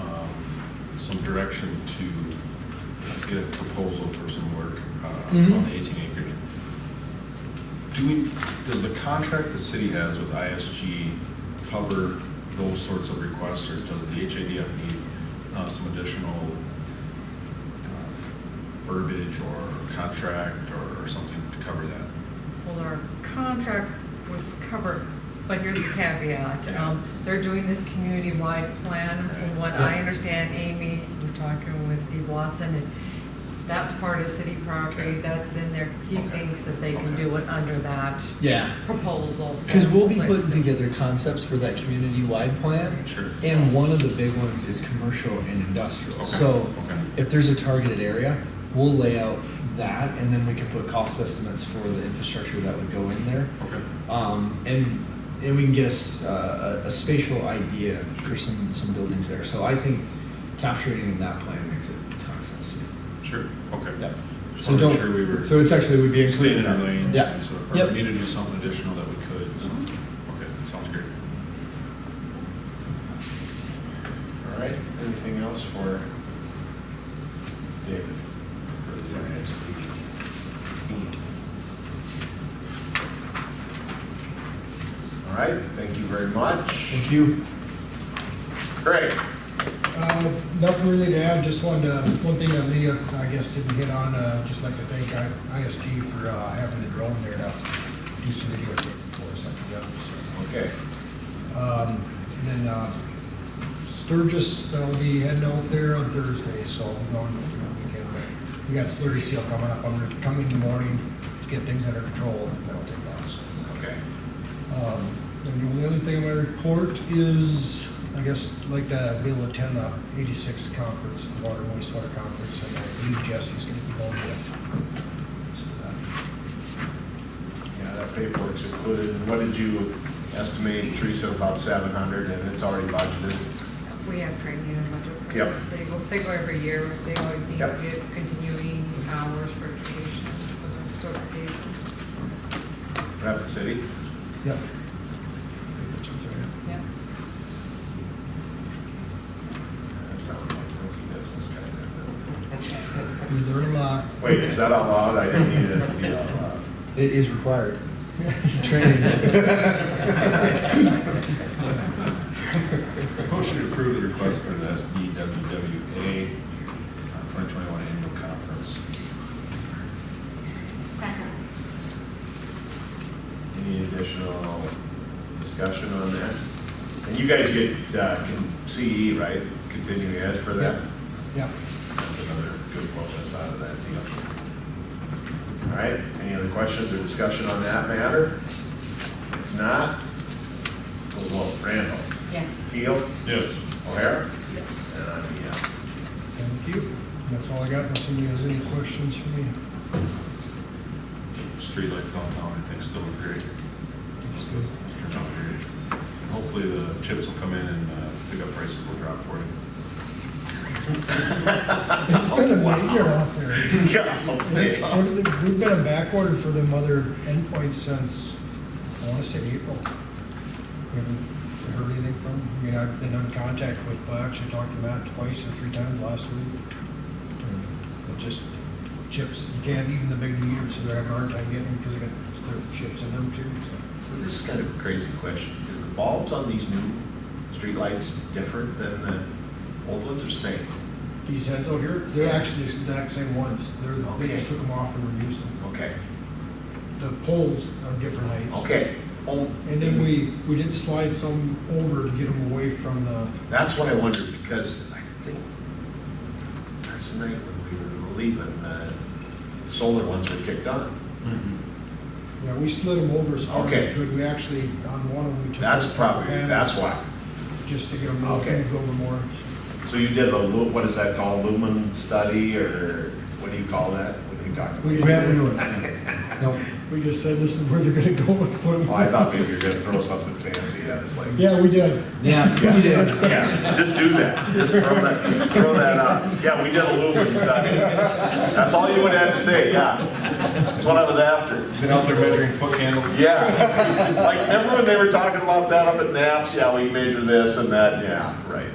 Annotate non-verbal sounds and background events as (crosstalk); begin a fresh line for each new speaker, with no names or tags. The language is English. um, direction to get a proposal for some work uh,
Mhm.
on the 18 acres. Do we, does the contract the city has with ISG cover those sorts of requests, or does the HADF need uh, some additional uh, verbiage or contract or- or something to cover that?
Well, our contract would cover, but here's the caveat. Um, They're doing this community-wide plan, from what I understand, Amy was talking with Steve Watson, and that's part of city property,
Okay.
that's in there. He
Okay.
thinks that they can do it under that
Yeah.
proposal. so-
Because we'll be putting together concepts for that community-wide plan.
Sure.
And one of the big ones is commercial and industrial.
Okay,
So
okay.
if there's a targeted area, we'll lay out that and then we can put cost estimates for the infrastructure that would go in there.
Okay.
Um, and, and we can get a s- uh, a, a- a spatial idea for some, some buildings there. So I think capturing in that plan makes a ton of sense to me.
Sure, okay.
Yep.
Just
So
wanna make
don't,
sure we were
so it's actually, would be
staying
included
in
in
our
that.
lanes,
Yeah.
and so if
Yep.
we needed to do something additional that we could, so, okay, sounds great.
All right, anything else for David? for the finance team? All right, thank you very much.
Thank you.
Great.
Uh, Nothing really to add, just wanted to, one thing that Leah, I guess, didn't hit on, uh, just like to thank I- ISG for uh, having the drone there to do some video taking for us, like the others.
Okay,
Um, And then uh, Sturgis, they'll be heading out there on Thursday, so we're going, you know, we can- we got Slurry Seal coming up, I'm gonna come in the morning to get things under control, and that'll take off, so.
okay.
Um, And the only thing I'm gonna report is, I guess, I'd like to be able to attend the eighty-six conference, the water and wastewater conference, and I believe Jesse's gonna be going to it. So,
Yeah, that paperwork's included. And What did you estimate, Teresa, about 700, and it's already budgeted?
We have training and budget.
Yep.
They go, they go every year, they always need to
Yep.
get continuing hours for education, for certification.
Rapid City?
that- Yep.
Yeah.
That sounds like rookie business kind
We learn a lot.
of. Wait, is that out loud? I didn't need it to be out loud.
It is required.
(laughs)
Training.
Motion to approve the request for the SDWWA 2021 annual conference.
Second.
Any additional discussion on that? And you guys get uh, con- CE, right, continuing ed for that?
Yep.
That's another good bonus out of that deal. All right, any other questions or discussion on that matter? If not, we'll vote. Randall?
Yes.
Keel?
Yes.
O'Hara?
Yes.
And I'm a yes.
Thank you. That's all I got. Unless somebody has any questions for me.
Streetlights downtown, I think, still look great.
That's
(laughs)
good.
Turned out great. And Hopefully the chips will come in and uh, pick up prices will drop for you.
It's been a major out there. (laughs) It's-
Yeah.
we've been- We've been backorder for them other endpoints since, I want to say April. We haven't heard anything from, them. I mean, I've been in contact with, I actually talked to Matt twice or three times last week. It just, chips, you can't, even the big meters, they're having a hard time getting because they got certain chips in them too, so.
So this is kind of a crazy question. Is the bulbs on these new streetlights different than the old ones or same?
These heads out here, they're actually the exact same ones. They're, they just took them off and reused them.
Okay,
The poles are different heights.
okay. Oh,
And then we, we did slide some over to get them away from the,
That's what I wondered, because I think last night when we were leaving, the uh, solar ones were kicked on.
yeah, we slid them over as far as
Okay.
we could. We actually, on one of them, we took.
That's
the
probably,
panels
that's why.
Just to get them moved
Okay.
moved over more.
So you did a, lu- what is that called, lumen study, or what do you call that? What do you talk about?
We
haven't
didn't (laughs) We just said this is where they're gonna go with
Oh, I
them.
thought maybe you were gonna throw something fancy at us, like.
Yeah, we did.
Yeah, we did.
Yeah, just do that. Just throw that, throw that out. Yeah, we did a lumen study. That's all you would have to say, yeah. That's what I was after.
Been out there measuring foot
(laughs)
candles.
Yeah, like remember when they were talking about that up at Naps? Yeah, we measure this and that. Yeah, right.